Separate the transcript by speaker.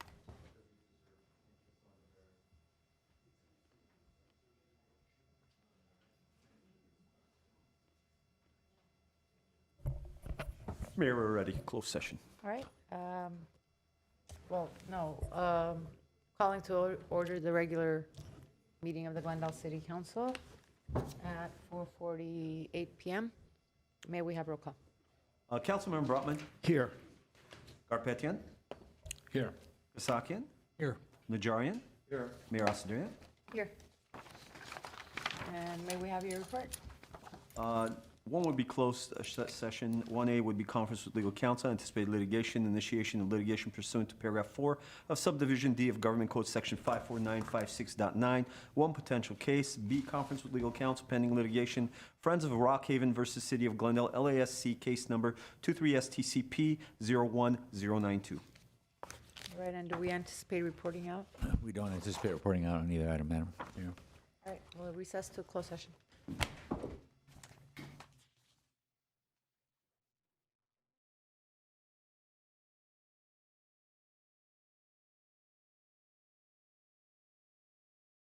Speaker 1: Mayor, we're ready. Closed session.
Speaker 2: All right. um, Well, no, um, calling to or- order the regular meeting of the Glendale City Council at 4:48 PM. May we have roll call?
Speaker 1: Uh, Councilmember Brotman,
Speaker 3: Here.
Speaker 1: Garpetian,
Speaker 3: Here.
Speaker 1: Kasakian,
Speaker 3: Here.
Speaker 1: Najarian. Here. Mayor Asadarian.
Speaker 2: Here. And may we have your report?
Speaker 1: Uh, One would be closed uh, se- session. 1A would be conference with legal counsel, anticipated litigation, initiation of litigation pursuant to paragraph 4 of subdivision D of Government Code Section 54956.9, one potential case. B, conference with legal counsel pending litigation, Friends of Rockhaven versus City of Glendale, LASC case number 23STCP 01092.
Speaker 2: All Right, and do we anticipate reporting out?
Speaker 4: We don't anticipate reporting out on either item, Madam Mayor.
Speaker 2: All right, we'll recess to closed session.